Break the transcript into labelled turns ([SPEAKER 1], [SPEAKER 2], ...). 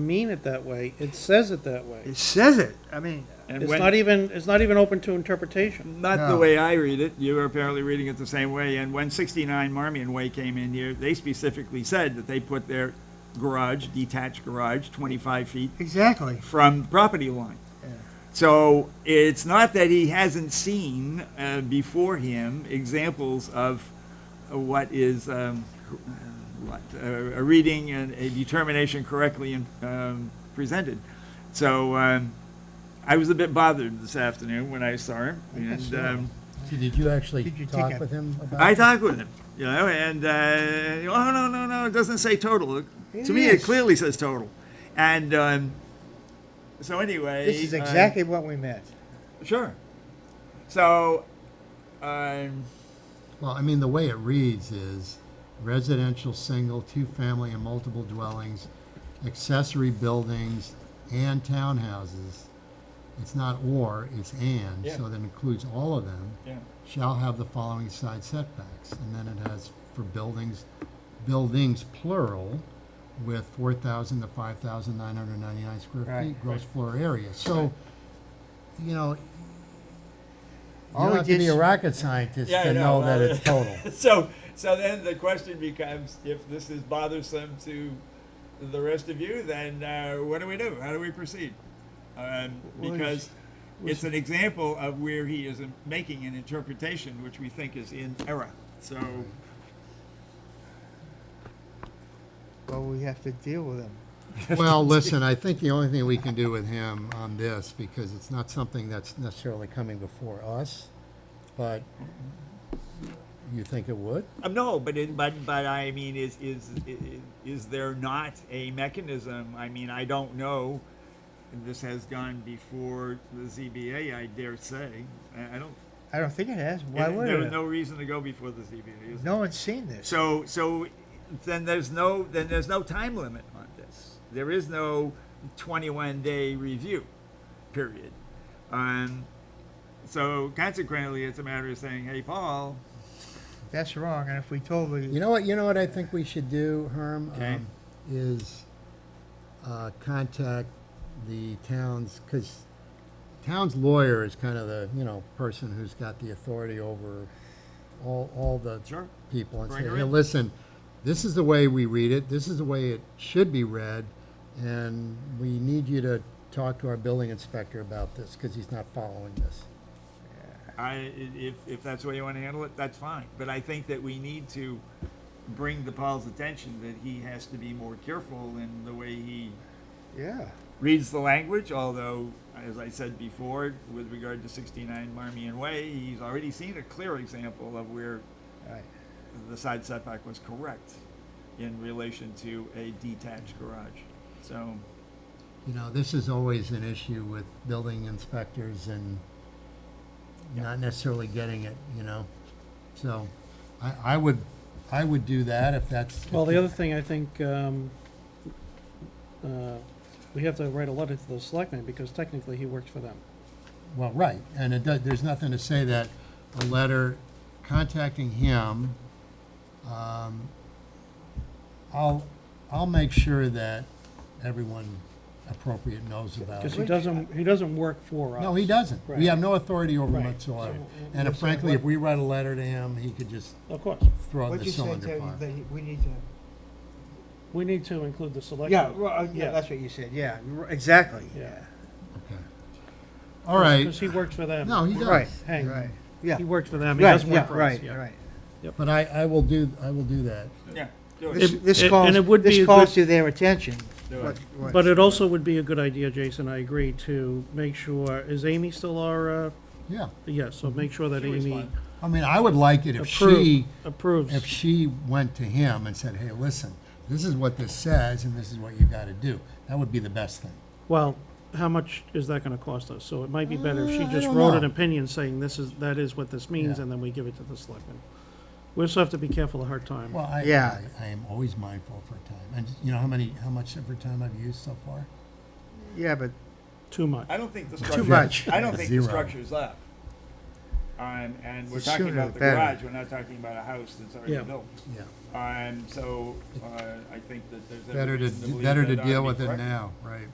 [SPEAKER 1] mean it that way, it says it that way.
[SPEAKER 2] It says it. I mean,
[SPEAKER 3] And
[SPEAKER 1] It's
[SPEAKER 3] when-
[SPEAKER 1] not even, it's not even open to interpretation.
[SPEAKER 3] Not the
[SPEAKER 2] No.
[SPEAKER 3] way I read it. You were apparently reading it the same way. And when 69 Marmion Way came in here, they specifically said that they put their garage, detached garage, 25 feet
[SPEAKER 2] exactly.
[SPEAKER 3] from property line.
[SPEAKER 2] Yeah.
[SPEAKER 3] So it's not that he hasn't seen uh, before him examples of uh, what is um, what, uh, a reading and a determination correctly um, presented. So um, I was a bit bothered this afternoon when I saw him, and um,
[SPEAKER 4] Did you actually
[SPEAKER 2] Did you take
[SPEAKER 4] talk
[SPEAKER 2] a-
[SPEAKER 4] with him about?
[SPEAKER 3] I
[SPEAKER 4] it?
[SPEAKER 3] talked with him, you know, and uh, oh no no no, it doesn't say total.
[SPEAKER 2] It
[SPEAKER 3] to me, it
[SPEAKER 2] is.
[SPEAKER 3] clearly says total, and um, so anyway,
[SPEAKER 2] This is
[SPEAKER 3] uh,
[SPEAKER 2] exactly what we meant.
[SPEAKER 3] Sure. So, um,
[SPEAKER 4] Well, I mean, the way it reads is residential, single, two-family and multiple dwellings, accessory buildings and townhouses. It's not or, it's and,
[SPEAKER 3] Yeah.
[SPEAKER 4] so that includes all of them.
[SPEAKER 3] yeah.
[SPEAKER 4] shall have the following side setbacks, and then it has for buildings, buildings plural, with four thousand to five thousand nine hundred ninety-nine square
[SPEAKER 2] Right,
[SPEAKER 4] feet gross floor area, so, you know, you
[SPEAKER 2] All
[SPEAKER 4] don't
[SPEAKER 2] we
[SPEAKER 4] have to
[SPEAKER 2] did
[SPEAKER 4] be a
[SPEAKER 2] s-
[SPEAKER 4] rocket scientist
[SPEAKER 3] Yeah, I
[SPEAKER 4] to
[SPEAKER 3] know,
[SPEAKER 4] know that
[SPEAKER 3] well,
[SPEAKER 4] it's total.
[SPEAKER 3] So, so then the question becomes: If this is bothersome to the rest of you, then uh, what do we do? How do we proceed? Um,
[SPEAKER 2] Well,
[SPEAKER 3] because
[SPEAKER 2] we
[SPEAKER 3] it's an example of where he is in- making an interpretation which we think is in error. So,
[SPEAKER 2] Well, we have to deal with them.
[SPEAKER 4] Well, listen, I think the only thing we can do with him on this, because it's not something that's necessarily coming before us, but you think it would?
[SPEAKER 3] um, no, but it, but but I mean, is is i- i- is there not a mechanism? I mean, I don't know. This has gone before the ZBA, I dare say. I I don't
[SPEAKER 2] I don't think it has. Why
[SPEAKER 3] And
[SPEAKER 2] would
[SPEAKER 3] there
[SPEAKER 2] it?
[SPEAKER 3] was
[SPEAKER 2] have?
[SPEAKER 3] no reason to go before the ZBA. is there?
[SPEAKER 2] No one's seen this.
[SPEAKER 3] So, so then there's no, then there's no time limit on this. There is no twenty-one day review period. Um, so consequently, it's a matter of saying, hey, Paul,
[SPEAKER 2] That's wrong. And if we told the,
[SPEAKER 4] You know what? You know what I think we should do, Herm.
[SPEAKER 3] Okay.
[SPEAKER 4] Um, is uh, contact the town's because town's lawyer is kind of the you know person who's got the authority over all all the
[SPEAKER 3] Sure.
[SPEAKER 4] people and
[SPEAKER 3] Bring
[SPEAKER 4] say,
[SPEAKER 3] her
[SPEAKER 4] hey,
[SPEAKER 3] in."
[SPEAKER 4] listen, this is the way we read it. This is the way it should be read, and we need you to talk to our building inspector about this because he's not following this.
[SPEAKER 3] I, i- if, if that's the way you want to handle it, that's fine. But I think that we need to bring to Paul's attention that he has to be more careful in the way he
[SPEAKER 2] yeah,
[SPEAKER 3] reads the language, although, as I said before, with regard to 69 Marmion Way, he's already seen a clear example of where
[SPEAKER 2] right.
[SPEAKER 3] the side setback was correct in relation to a detached garage. So,
[SPEAKER 4] You know, this is always an issue with building inspectors and
[SPEAKER 3] Yeah.
[SPEAKER 4] not necessarily getting it, you know? So, I, I would, I would do that if that's.
[SPEAKER 1] Well, the other thing, I think, um, uh, we have to write a letter to the selectmen, because technically he works for them.
[SPEAKER 4] Well, right, and it does, there's nothing to say that a letter contacting him, um, I'll, I'll make sure that everyone appropriate knows about
[SPEAKER 1] Because
[SPEAKER 4] it.
[SPEAKER 1] he doesn't, he doesn't work for us.
[SPEAKER 4] No, he doesn't. We
[SPEAKER 1] Right.
[SPEAKER 4] have no authority over him
[SPEAKER 1] Right.
[SPEAKER 4] whatsoever.
[SPEAKER 2] So,
[SPEAKER 4] And
[SPEAKER 2] we're
[SPEAKER 4] frankly,
[SPEAKER 2] saying
[SPEAKER 4] if we write a letter to him, he could just
[SPEAKER 1] Of course.
[SPEAKER 4] throw
[SPEAKER 2] What'd
[SPEAKER 4] the
[SPEAKER 2] you say,
[SPEAKER 4] cylinder
[SPEAKER 2] Terry,
[SPEAKER 4] fire.
[SPEAKER 2] that you- we need to?
[SPEAKER 1] We need to include the selectmen.
[SPEAKER 2] Yeah, well, uh, yeah,
[SPEAKER 1] Yeah.
[SPEAKER 2] that's what you said. Yeah, you're right. exactly.
[SPEAKER 1] Yeah.
[SPEAKER 4] Okay. All right.
[SPEAKER 1] Because he works for them.
[SPEAKER 4] No, he
[SPEAKER 2] Right,
[SPEAKER 4] does.
[SPEAKER 1] Hank.
[SPEAKER 2] right. Yeah.
[SPEAKER 1] He works for them, he
[SPEAKER 2] Right,
[SPEAKER 1] doesn't
[SPEAKER 2] yeah,
[SPEAKER 1] work for us,
[SPEAKER 2] right,
[SPEAKER 1] yeah.
[SPEAKER 2] right.
[SPEAKER 4] But I, I will do, I will do that.
[SPEAKER 3] yeah, do
[SPEAKER 2] This,
[SPEAKER 3] it.
[SPEAKER 1] If-
[SPEAKER 2] this
[SPEAKER 1] and-
[SPEAKER 2] calls,
[SPEAKER 1] and it would be
[SPEAKER 2] this
[SPEAKER 1] a
[SPEAKER 2] calls
[SPEAKER 1] good-
[SPEAKER 2] to their attention.
[SPEAKER 3] Do
[SPEAKER 2] What-
[SPEAKER 3] it.
[SPEAKER 2] what-
[SPEAKER 1] But it also would be a good idea, Jason, I agree, to make sure, is Amy still our, uh,
[SPEAKER 4] Yeah.
[SPEAKER 1] yes, so make sure that
[SPEAKER 3] She was
[SPEAKER 1] Amy
[SPEAKER 3] fine.
[SPEAKER 4] I mean, I would like it if she,
[SPEAKER 1] approves, approves.
[SPEAKER 4] if she went to him and said, hey, listen, this is what this says and this is what you gotta do. That would be the best thing.
[SPEAKER 1] Well, how much is that gonna cost us? So it might be better if
[SPEAKER 4] Uh,
[SPEAKER 1] she
[SPEAKER 4] I
[SPEAKER 1] just
[SPEAKER 4] don't
[SPEAKER 1] wrote
[SPEAKER 4] know.
[SPEAKER 1] an opinion saying this is, that is what this means,
[SPEAKER 4] Yeah.
[SPEAKER 1] and then we give it to the selectmen. We also have to be careful of her time.
[SPEAKER 4] Well, I,
[SPEAKER 2] Yeah.
[SPEAKER 4] I- I am always mindful of her time. And you know how many, how much of her time I've used so far?
[SPEAKER 2] Yeah, but
[SPEAKER 1] Too much.
[SPEAKER 3] I don't think the structure.
[SPEAKER 2] much.
[SPEAKER 3] I don't think the
[SPEAKER 4] Zero.
[SPEAKER 3] structure's up. Um, and we're
[SPEAKER 2] The
[SPEAKER 3] talking
[SPEAKER 2] sooner
[SPEAKER 3] about
[SPEAKER 2] the
[SPEAKER 3] the
[SPEAKER 2] better.
[SPEAKER 3] garage, we're not talking about a house that's
[SPEAKER 1] Yeah.
[SPEAKER 3] already built.
[SPEAKER 4] yeah.
[SPEAKER 3] Um, so, uh, I think that there's.
[SPEAKER 4] Better to,
[SPEAKER 3] evidence believe
[SPEAKER 4] better to
[SPEAKER 3] that ought
[SPEAKER 4] deal
[SPEAKER 3] be
[SPEAKER 4] with it
[SPEAKER 3] corrected.
[SPEAKER 4] now, right.